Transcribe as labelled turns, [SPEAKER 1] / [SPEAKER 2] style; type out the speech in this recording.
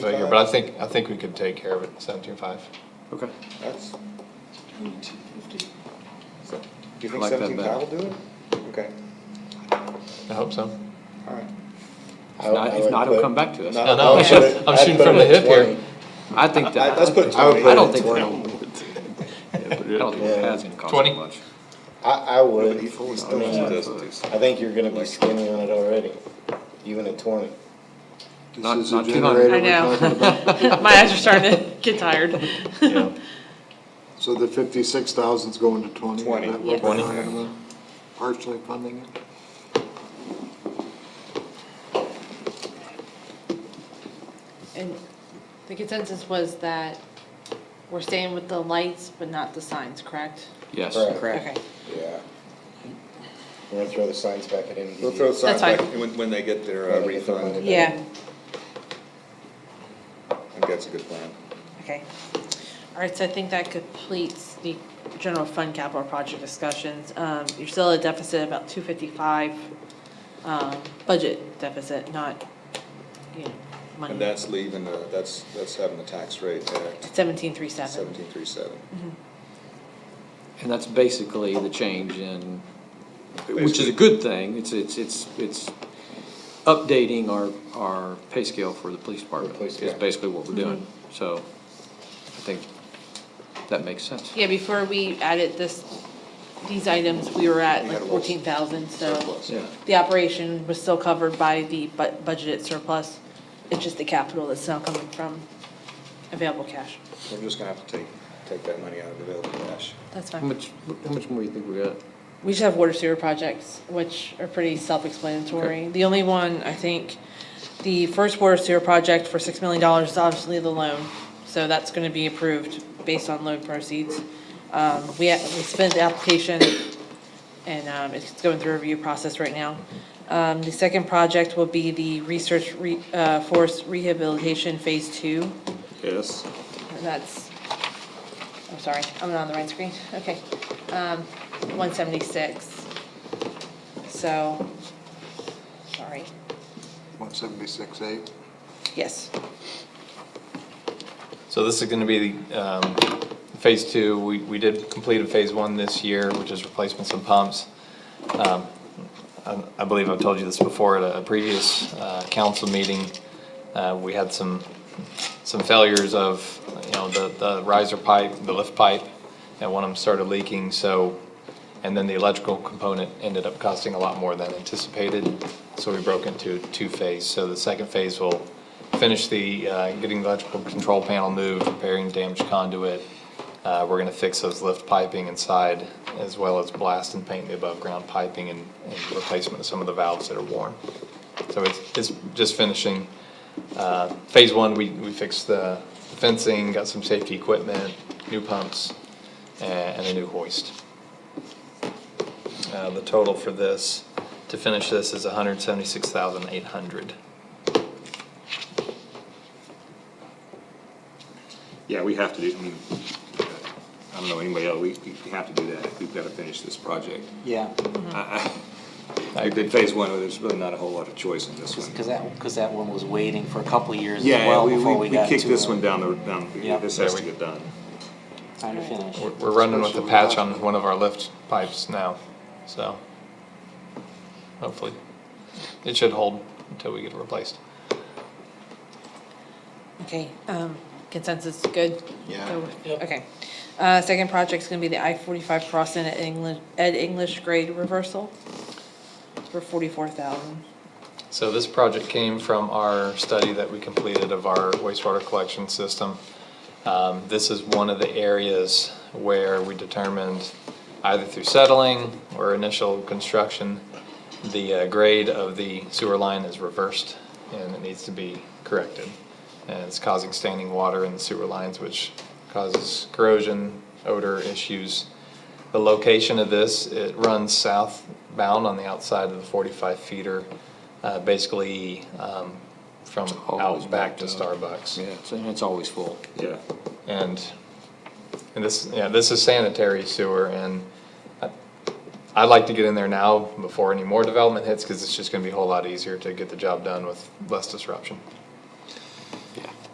[SPEAKER 1] figure, but I think, I think we could take care of it, oh seventeen-five.
[SPEAKER 2] Okay.
[SPEAKER 3] That's, do
[SPEAKER 4] Twenty-two fifty.
[SPEAKER 3] you
[SPEAKER 2] I
[SPEAKER 3] think
[SPEAKER 2] like that
[SPEAKER 3] seventeen
[SPEAKER 2] better.
[SPEAKER 3] five will do it? Okay,
[SPEAKER 1] I hope so.
[SPEAKER 3] alright.
[SPEAKER 2] If not, if not, it'll come back to us.
[SPEAKER 1] No, no, I'm shooting, I'm shooting from the hip here.
[SPEAKER 2] I think that.
[SPEAKER 3] Let's put
[SPEAKER 5] I would
[SPEAKER 3] twenty.
[SPEAKER 5] put
[SPEAKER 2] I don't
[SPEAKER 5] it
[SPEAKER 2] think
[SPEAKER 5] at
[SPEAKER 2] I don't think it has gonna cost
[SPEAKER 1] Twenty?
[SPEAKER 2] that much.
[SPEAKER 5] I, I would,
[SPEAKER 3] But he- he
[SPEAKER 5] I
[SPEAKER 3] still
[SPEAKER 5] mean,
[SPEAKER 3] doesn't do
[SPEAKER 5] I think you're gonna be skinny on it already, even at twenty.
[SPEAKER 2] Not,
[SPEAKER 6] This is
[SPEAKER 2] not
[SPEAKER 6] a
[SPEAKER 2] two hundred.
[SPEAKER 6] generator.
[SPEAKER 4] I know. My eyes are starting to get tired.
[SPEAKER 1] Yeah.
[SPEAKER 6] So the fifty-six thousand's going to twenty?
[SPEAKER 3] 20.
[SPEAKER 6] Is that what we're
[SPEAKER 1] Yes.
[SPEAKER 6] talking about? Partially funding it?
[SPEAKER 4] And the consensus was that we're staying with the lights, but not the signs, correct?
[SPEAKER 2] Yes.
[SPEAKER 5] Correct.
[SPEAKER 4] Okay.
[SPEAKER 5] Yeah. We're gonna throw the signs back at MDD.
[SPEAKER 3] We'll throw signs
[SPEAKER 4] fine.
[SPEAKER 3] back when, when they get their uh,
[SPEAKER 5] When they get their money.
[SPEAKER 3] refund,
[SPEAKER 4] Yeah,
[SPEAKER 3] I think that's a good plan.
[SPEAKER 4] okay. All right, so I think that completes the general fund capital project discussions. Um, you're still at a deficit about two fifty-five, um, budget deficit, not, you know, money.
[SPEAKER 3] And that's leaving, the- that's, that's having the tax rate at
[SPEAKER 4] Seventeen three seven.
[SPEAKER 3] seventeen three seven.
[SPEAKER 2] And that's basically the change in, which is a good thing, it's, it's, it's, it's updating our, our pay scale for the police department.
[SPEAKER 5] police
[SPEAKER 2] Is
[SPEAKER 5] department.
[SPEAKER 2] basically what we're doing, so I think that makes sense.
[SPEAKER 4] Yeah, before we added this, these items, we were at
[SPEAKER 3] We
[SPEAKER 4] like
[SPEAKER 3] had a little
[SPEAKER 4] fourteen thousand, so
[SPEAKER 3] Surplus.
[SPEAKER 2] Yeah,
[SPEAKER 4] the operation was still covered by the bu- budgeted surplus. It's just the capital that's now coming from available cash.
[SPEAKER 3] We're just gonna have to take, take that money out of available cash.
[SPEAKER 4] That's
[SPEAKER 2] how
[SPEAKER 4] fine.
[SPEAKER 2] much, how much more you think we got?
[SPEAKER 4] We just have water sewer projects, which are pretty self-explanatory. The only one, I think, the first water sewer project for six million dollars is obviously the loan. So that's gonna be approved based on loan proceeds. Um, we, we spent the application and, um, it's going through a review process right now. Um, the second project will be the research re, uh, force rehabilitation phase two.
[SPEAKER 3] Yes.
[SPEAKER 4] And that's, I'm sorry, I'm not on the right screen, okay. Um, one seventy-six. So, sorry,
[SPEAKER 6] One seventy-six eight?
[SPEAKER 4] yes,
[SPEAKER 1] So this is gonna be, um, phase two, we, we did complete a phase one this year, which is replacement some pumps. Um, I, I believe I've told you this before at a previous, uh, council meeting, uh, we had some, some failures of, you know, the, the riser pipe, the lift pipe, and one of them started leaking, so, and then the electrical component ended up costing a lot more than anticipated, so we broke into two phase, so the second phase will finish the, uh, getting the electrical control panel moved, repairing damaged conduit. Uh, we're gonna fix those lift piping inside, as well as blast and paint the above-ground piping and, and replacement of some of the valves that are worn. So it's, it's just finishing, uh, phase one, we, we fixed the fencing, got some safety equipment, new pumps, a- and a new hoist. Uh, the total for this, to finish this, is hundred seventy-six thousand eight hundred.
[SPEAKER 7] Yeah, we have to do, I mean, I don't know anybody else, we, we have to do that, we've gotta finish this project.
[SPEAKER 8] Yeah,
[SPEAKER 1] I
[SPEAKER 7] We did phase one, there's really not a whole lot of choice in this one.
[SPEAKER 8] because that, because that one was waiting for a couple of years as
[SPEAKER 7] Yeah,
[SPEAKER 8] well
[SPEAKER 7] we,
[SPEAKER 8] before
[SPEAKER 7] we
[SPEAKER 8] we
[SPEAKER 7] we
[SPEAKER 8] got to.
[SPEAKER 7] kicked this
[SPEAKER 8] a
[SPEAKER 7] one down the, down,
[SPEAKER 8] Yeah.
[SPEAKER 7] this has to get done.
[SPEAKER 8] Time to finish.
[SPEAKER 1] We're, we're running with a patch on one of our lift pipes now, so hopefully it should hold until we get it replaced.
[SPEAKER 4] okay, um, consensus, good?
[SPEAKER 5] Yeah.
[SPEAKER 4] Go with- Okay, uh, second project's gonna be the I forty-five crossing at English, at English grade reversal for forty-four thousand.
[SPEAKER 1] So this project came from our study that we completed of our wastewater collection system. Um, This is one of the areas where we determined either through settling or initial construction, the uh, grade of the sewer line is reversed and it needs to be corrected. And it's causing standing water in the sewer lines, which causes corrosion, odor issues. The location of this, it runs southbound on the outside of the forty-five feeder, uh, basically, um, from
[SPEAKER 2] always
[SPEAKER 1] out back to
[SPEAKER 2] backed up.
[SPEAKER 1] Starbucks.
[SPEAKER 2] Yeah, it's- and it's always full.
[SPEAKER 7] Yeah,
[SPEAKER 1] And, and this, yeah, this is sanitary sewer and I- I'd like to get in there now before any more development hits, cause it's just gonna be a whole lot easier to get the job done with less disruption.